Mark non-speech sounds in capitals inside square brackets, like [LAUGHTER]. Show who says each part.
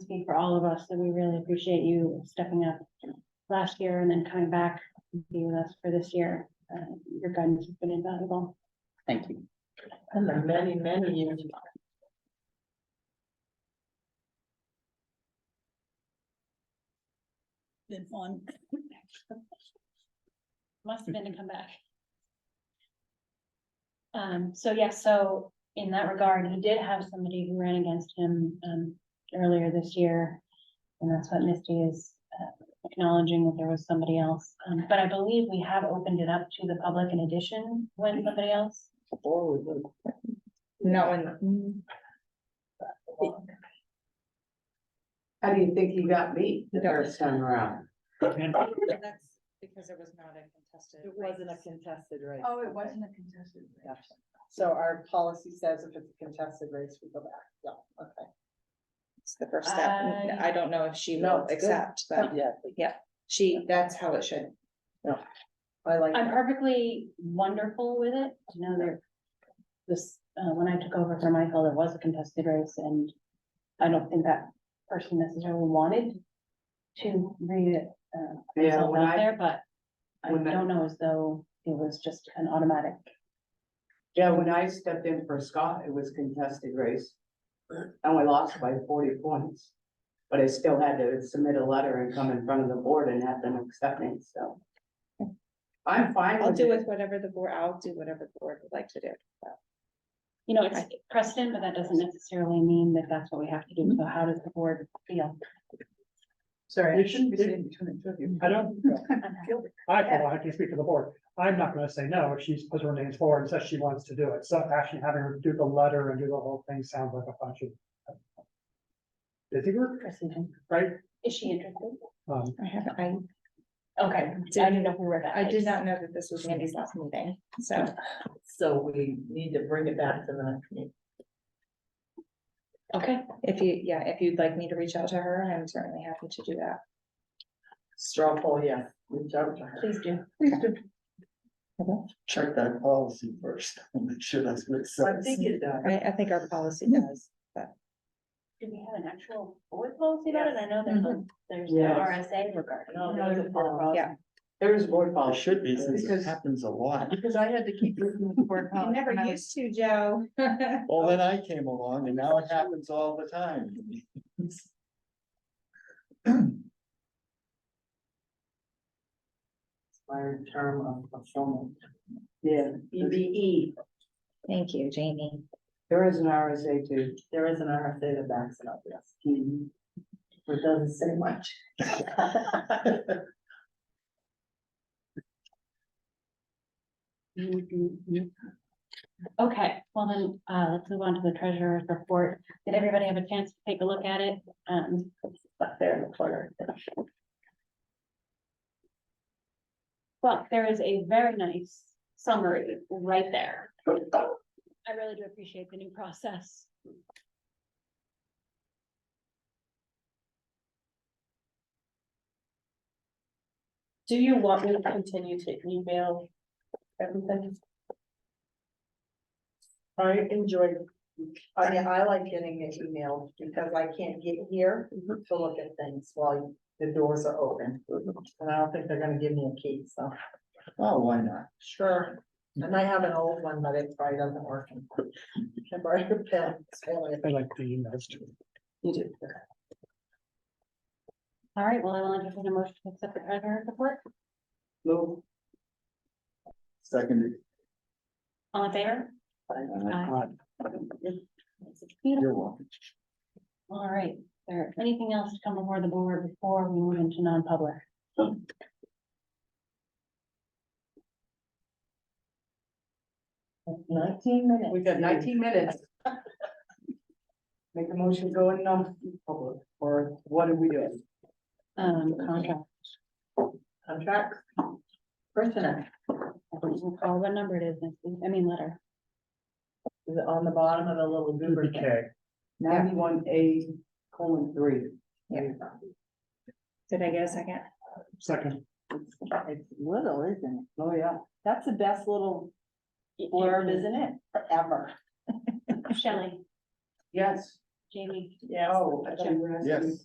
Speaker 1: speak for all of us, that we really appreciate you stepping up last year and then coming back and be with us for this year. Uh, your guidance has been invaluable.
Speaker 2: Thank you.
Speaker 3: And the many, many years.
Speaker 2: Been fun.
Speaker 1: Must have been to come back. Um, so yes, so in that regard, he did have somebody who ran against him, um, earlier this year. And that's what Misty is uh, acknowledging that there was somebody else. Um, but I believe we have opened it up to the public in addition when somebody else.
Speaker 3: No, and. How do you think he got beat the first time around?
Speaker 4: That's because it was not a contested.
Speaker 5: It wasn't a
Speaker 4: race.
Speaker 5: contested race.
Speaker 3: Oh, it wasn't a contested race.
Speaker 5: Gotcha. So our policy says if it's a contested race, we go back. Yeah, okay.
Speaker 4: It's the first step.
Speaker 1: I-
Speaker 4: I don't know if she
Speaker 3: No,
Speaker 4: will
Speaker 3: it's good.
Speaker 4: accept, but
Speaker 5: Yeah.
Speaker 4: she,
Speaker 3: That's how it should. No. I like
Speaker 1: I'm
Speaker 3: that.
Speaker 1: perfectly wonderful with it. You know, there, this, uh, when I took over for Michael, there was a contested race and I don't think that person necessarily wanted to read it, uh,
Speaker 3: Yeah,
Speaker 1: result
Speaker 3: when
Speaker 1: out
Speaker 3: I,
Speaker 1: there, but I
Speaker 3: when I-
Speaker 1: don't know as though it was just an automatic.
Speaker 3: yeah, when I stepped in for Scott, it was contested race. And we lost by forty points. But I still had to submit a letter and come in front of the board and have them accept it, so. I'm fine
Speaker 4: I'll
Speaker 3: with
Speaker 4: do with
Speaker 3: it.
Speaker 4: whatever the board, I'll do whatever the board would like to do.
Speaker 1: You know, it's precedent, but that doesn't necessarily mean that that's what we have to
Speaker 3: Mm-hmm.
Speaker 1: do. So how does the board feel?
Speaker 5: Sorry.
Speaker 6: It shouldn't be- I don't, I, well, I can speak for the board. I'm not gonna say no if she's put her names forward and says she wants to do it. So actually having her do the letter and do the whole thing sounds like a bunch of busy work,
Speaker 1: Precedent.
Speaker 6: right?
Speaker 1: Is she interested?
Speaker 6: Um,
Speaker 4: I have, I,
Speaker 1: Okay, I didn't know if we were that.
Speaker 4: I did
Speaker 1: late.
Speaker 4: not know that this was Andy's last meeting, so.
Speaker 5: So we need to bring it back to the next meeting.
Speaker 1: Okay,
Speaker 4: If you, yeah, if you'd like me to reach out to her, I'm certainly happy to do that.
Speaker 5: Straw poll, yeah. Reach out to her.
Speaker 1: please do.
Speaker 7: check that policy first, [LAUGHS] and make sure that's what it
Speaker 3: I
Speaker 7: says.
Speaker 3: think it does.
Speaker 4: I, I think our policy does.
Speaker 1: Do we have an actual board policy about it? I know there's, a- there's the
Speaker 3: Yes.
Speaker 1: RSA regarding.
Speaker 5: No,
Speaker 3: There's a board policy.
Speaker 4: Yeah.
Speaker 3: There is board
Speaker 7: Well, it
Speaker 3: policy.
Speaker 7: should be, since
Speaker 5: Because-
Speaker 7: it happens
Speaker 3: [LAUGHS]
Speaker 7: a lot.
Speaker 5: Because I had to keep looking for.
Speaker 4: You never used to, Joe.
Speaker 7: Well, then I came along and now it happens all the time.
Speaker 5: Expired term of fulfillment.
Speaker 3: Yeah, EBE,
Speaker 4: Thank you, Jamie.
Speaker 3: there is an RSA too.
Speaker 5: There is an RFA that backs it up, yes.
Speaker 3: Mhm.
Speaker 5: It doesn't say much.
Speaker 1: Okay, well then, uh, let's move on to the treasurer's report. Did everybody have a chance to take a look at it? Um, it's up there in the corner. Well, there is a very nice summary right there. I really do appreciate the new process.
Speaker 2: Do you want me to continue to email everything?
Speaker 5: I enjoy, I mean, I like getting it emailed because I can't get here to look at things while the doors are open. And I don't think they're gonna give me a key, so.
Speaker 7: Oh, why not?
Speaker 5: Sure, and I have an old one, but it probably doesn't work. [LAUGHS] Can borrow your pen? It's failing.
Speaker 6: I like the emails too.
Speaker 5: You do.
Speaker 1: All right, well, I will entertain a motion to accept the treasurer's report.
Speaker 3: Move.
Speaker 7: Seconded.
Speaker 1: All in favor?
Speaker 7: Uh,
Speaker 1: Aye. Beautiful.
Speaker 7: You're welcome.
Speaker 1: All right, Is there anything else to come before the board before we move into non-public?
Speaker 5: Nineteen minutes.
Speaker 3: We've got nineteen minutes. Make a motion going on public, or what are we doing?
Speaker 1: Um, contract,
Speaker 5: Contract. Personnel,
Speaker 1: I don't recall what number it is, I mean, letter.
Speaker 5: is it on the bottom of the little goober thing?
Speaker 6: BK.
Speaker 3: Ninety-one A colon three.
Speaker 4: Yeah. Did I get a second?
Speaker 6: Second,
Speaker 5: It's little, isn't it?
Speaker 3: Oh, yeah.
Speaker 5: That's the best little blurb, isn't it? Forever.
Speaker 1: Shelley,
Speaker 3: Yes.
Speaker 1: Jamie.
Speaker 5: Yeah.
Speaker 3: Oh, I thought you were asking me.
Speaker 7: Yes.